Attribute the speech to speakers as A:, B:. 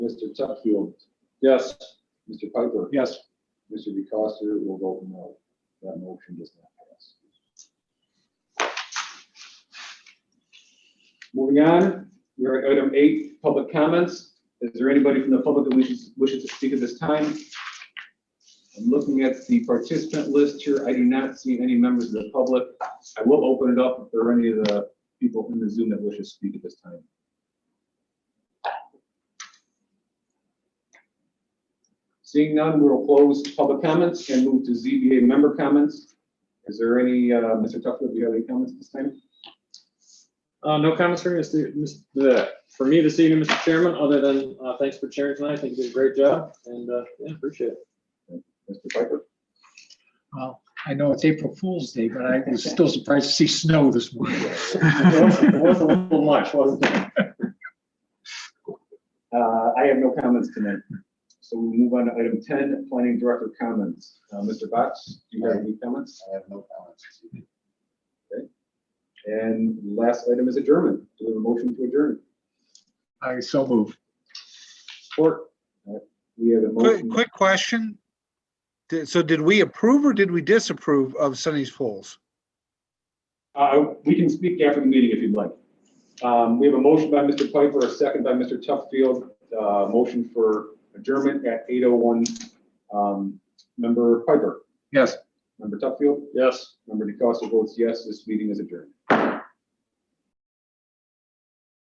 A: Mr. Tuckfield,
B: Yes.
A: Mr. Piper,
B: Yes.
A: Mr. DeCosta will vote no. That motion does not pass.
B: Moving on, we are at item eight, public comments. Is there anybody from the public that wishes, wishes to speak at this time? I'm looking at the participant list here. I do not see any members of the public. I will open it up if there are any of the people in the Zoom that wish to speak at this time. Seeing none, we'll close public comments and move to ZBA member comments. Is there any, uh, Mr. Tuckfield, do you have any comments at this time?
C: Uh, no comments for me, this e- mis- bleh, for me this evening, Mr. Chairman, other than, uh, thanks for chairing tonight. I think you did a great job and, uh, yeah, appreciate it.
B: Mr. Piper?
D: Well, I know it's April Fool's Day, but I was still surprised to see snow this morning.
C: It was- It was a little much, wasn't it?
B: Uh, I have no comments tonight. So we move on to item ten, planning director comments. Uh, Mr. Box, do you have any comments?
A: I have no comments.
B: And last item is adjournment. Do we have a motion to adjourn?
D: I so moved.
B: Support. Uh, We have a
E: Quick,
B: motion.
E: quick question. Did- So did we approve or did we disapprove of Sunny's Falls?
B: Uh, we can speak after the meeting if you'd like. Um, we have a motion by Mr. Piper, a second by Mr. Tuffield, uh, motion for adjournment at eight oh one. Um, member Piper,
D: Yes.
B: member Tuffield,
C: Yes.
B: member DeCosta votes yes, this meeting is adjourned.